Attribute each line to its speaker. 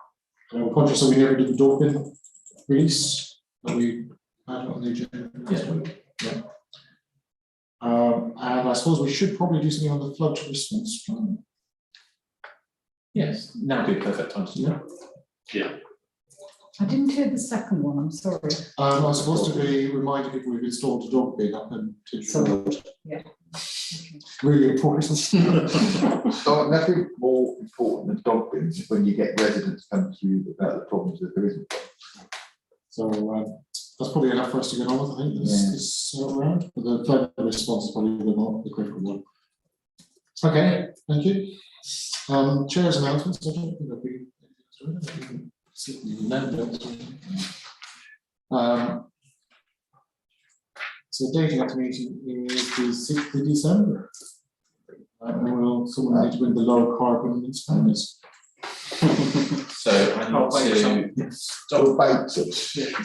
Speaker 1: And I'm conscious that we never did the dolphin release, that we had on the agenda last week. Yeah. Um, and I suppose we should probably do something on the flood response plan.
Speaker 2: Yes, now would be a perfect time to do that.
Speaker 3: I didn't hear the second one, I'm sorry.
Speaker 1: Um, I was supposed to be reminding people we've installed a dog bin up in Tidge Road.
Speaker 3: yeah.
Speaker 1: Really important.
Speaker 4: So nothing more important than dog bins when you get residents come to you about the problems that there isn't.
Speaker 1: So um, that's probably enough for us to get on with, I think, this,
Speaker 4: Yeah.
Speaker 1: this uh, round, but the flood response is probably the more, the critical one. Okay, thank you. Um, chairs announcements, I don't think that we.
Speaker 2: No.
Speaker 1: Um. So date of next meeting is the sixth of December. Uh, And will someone need to win the low carbon inspectors?
Speaker 2: So I need to.
Speaker 4: Dog bait.